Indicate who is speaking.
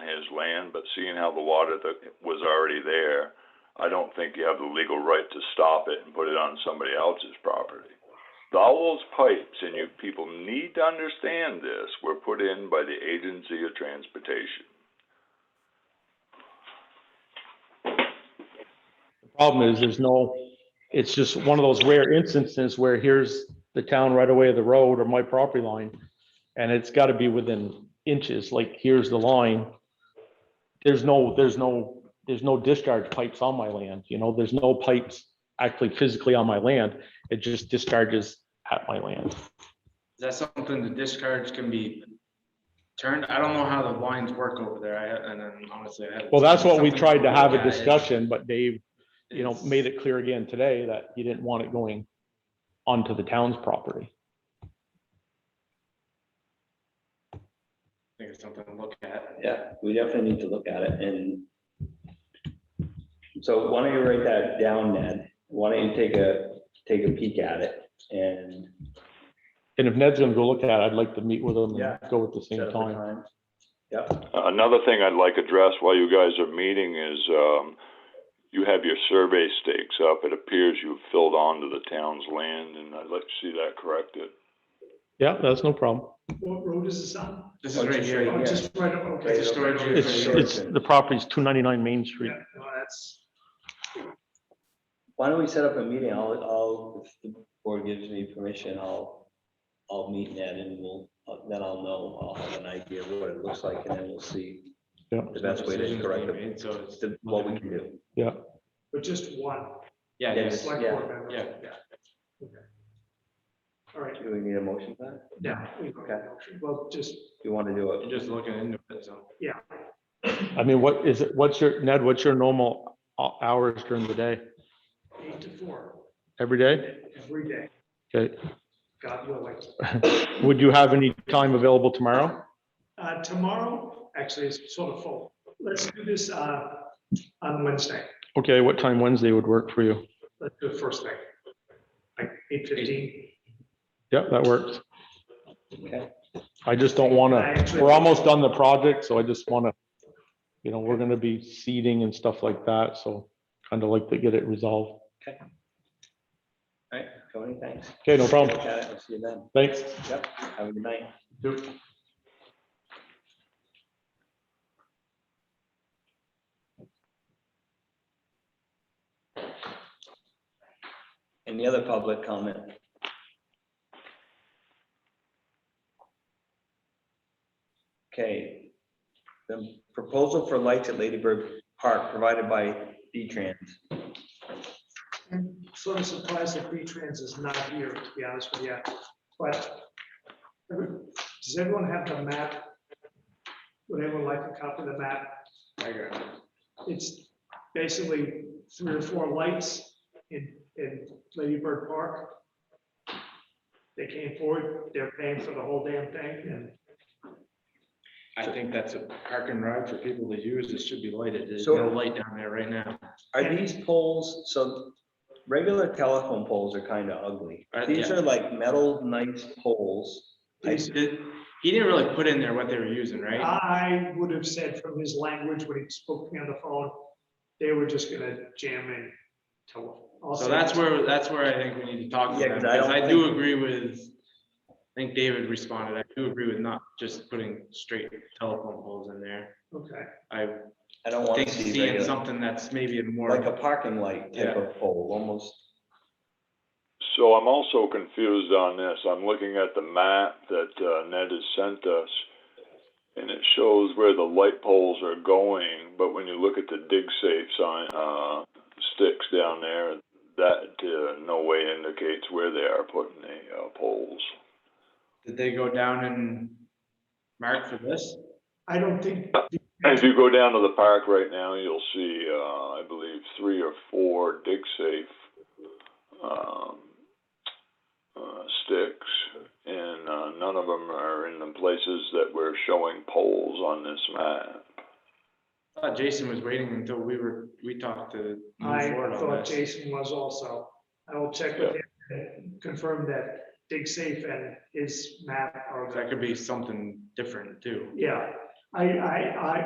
Speaker 1: his land, but seeing how the water that was already there, I don't think you have the legal right to stop it and put it on somebody else's property. All those pipes, and you people need to understand this, were put in by the Agency of Transportation.
Speaker 2: Problem is, there's no, it's just one of those rare instances where here's the town right away of the road or my property line. And it's gotta be within inches, like here's the line. There's no, there's no, there's no discharge pipes on my land, you know, there's no pipes actually physically on my land. It just discharges at my land.
Speaker 3: Is that something the discards can be turned? I don't know how the lines work over there. I, ha- and then honestly, I. haven't
Speaker 2: Well, that's
Speaker 3: seen
Speaker 2: what we
Speaker 3: something-
Speaker 2: tried to have
Speaker 3: Yeah,
Speaker 2: a
Speaker 3: it-
Speaker 2: discussion, but Dave, you know,
Speaker 3: it's-
Speaker 2: made it clear again today that you didn't want it going onto the town's property.
Speaker 3: I think it's something to look at.
Speaker 4: Yeah, we definitely need to look at it and so why don't you write that down, Ned? Why don't you take a, take a peek at it and.
Speaker 2: And if Ned's gonna go look at it, I'd like to meet with him
Speaker 4: Yeah.
Speaker 2: and go at the
Speaker 4: set
Speaker 2: same
Speaker 4: up a
Speaker 2: time.
Speaker 4: time? Yep,
Speaker 1: Another thing I'd like addressed while you guys are meeting is, um, you have your survey stakes up. It appears you've filled onto the town's land, and I'd like to see that corrected.
Speaker 2: Yeah, that's no problem.
Speaker 5: What road is this on?
Speaker 3: This is right
Speaker 5: Oh,
Speaker 3: here.
Speaker 4: Yeah.
Speaker 5: just right up, okay.
Speaker 3: It's a storage
Speaker 5: Yeah,
Speaker 2: It's,
Speaker 3: unit.
Speaker 2: it's, the property's two ninety-nine Main Street.
Speaker 5: no, that's,
Speaker 4: why don't we set up a meeting? I'll, I'll, if the board gives me permission, I'll, I'll meet Ned and we'll, then I'll know, I'll have an idea of what it looks like and then we'll see
Speaker 2: Yeah.
Speaker 4: the best way to correct it,
Speaker 3: it. So it's.
Speaker 4: the- what we can do.
Speaker 5: but just one,
Speaker 3: Yeah,
Speaker 4: Yeah,
Speaker 3: yes.
Speaker 4: just-
Speaker 5: select
Speaker 4: yeah,
Speaker 5: board member.
Speaker 3: yeah.
Speaker 5: All right,
Speaker 4: Do we need a motion for that?
Speaker 5: now, we go ahead. well, just,
Speaker 4: Do you want to do
Speaker 3: You're
Speaker 4: it?
Speaker 3: just looking into it, so.
Speaker 5: yeah,
Speaker 2: I mean, what is it, what's your, Ned, what's your normal ho- hours during the day?
Speaker 5: eight to four,
Speaker 2: Every day?
Speaker 5: every day,
Speaker 2: Okay.
Speaker 5: God willing.
Speaker 2: Would you have any time available tomorrow?
Speaker 5: Uh, tomorrow, actually, it's sort of full. Let's do this, uh, on Wednesday.
Speaker 2: Okay, what time Wednesday would work for you?
Speaker 5: Let's do it first thing. Like eight fifteen.
Speaker 2: Yep, that works.
Speaker 4: Okay.
Speaker 2: I just don't wanna, we're almost done the project, so I just wanna, you know, we're gonna be seeding and stuff like that, so kind of like to get it resolved.
Speaker 4: All right, Tony, thanks.
Speaker 2: Okay, no problem.
Speaker 4: Look at it, we'll See you then.
Speaker 2: Thanks.
Speaker 4: Yep, have a good night. Any other public comment? Okay. The proposal for lights at Lady Bird Park provided by D-Trans.
Speaker 5: I'm sort of surprised that V-Trans is not here, to be honest with you, but does everyone have the map? Would anyone like a copy of the map?
Speaker 3: I got it.
Speaker 5: It's basically three or four lights in, in Lady Bird Park. They came forward, they're paying for the whole damn thing, and
Speaker 3: I think that's a park and ride for people to use. It should be lighted. There's
Speaker 4: So-
Speaker 3: no light down there right now.
Speaker 4: Are these poles, so regular telephone poles are kind of ugly.
Speaker 3: Uh,
Speaker 4: These
Speaker 3: yeah.
Speaker 4: are like metal nice poles.
Speaker 3: I did- He didn't really put in there what they were using, right?
Speaker 5: I would have said from his language when he spoke to me on the phone, they were just gonna jam in to. I'll
Speaker 3: So
Speaker 5: say-
Speaker 3: that's where, that's where I think we need to talk to
Speaker 4: Yeah,
Speaker 3: them,
Speaker 4: 'cause I
Speaker 3: because
Speaker 4: don't
Speaker 3: I do
Speaker 4: think-
Speaker 3: agree with, I think David responded, I do agree with not just putting straight telephone poles in there.
Speaker 5: Okay.
Speaker 3: I
Speaker 4: I don't want
Speaker 3: think
Speaker 4: to see
Speaker 3: seeing
Speaker 4: regular,
Speaker 3: something that's maybe a more.
Speaker 4: like a parking light type of pole, almost.
Speaker 1: So I'm also confused on this. I'm looking at the map that uh, Ned has sent us, and it shows where the light poles are going, but when you look at the dig safe sign, uh, sticks down there, that uh, no way indicates where they are putting the uh, poles.
Speaker 3: Did they go down and mark for this?
Speaker 5: I don't think,
Speaker 1: If you go down to the park right now, you'll see, uh, I believe, three or four dig safe, um, uh, sticks. And, uh, none of them are in the places that we're showing poles on this map.
Speaker 3: I thought Jason was waiting until we were, we talked to. move
Speaker 5: I
Speaker 3: forward on
Speaker 5: thought
Speaker 3: this.
Speaker 5: Jason was also. I will check with him, and confirm that Dig Safe and his map are,
Speaker 3: That could be something different too.
Speaker 5: yeah. I, I, I,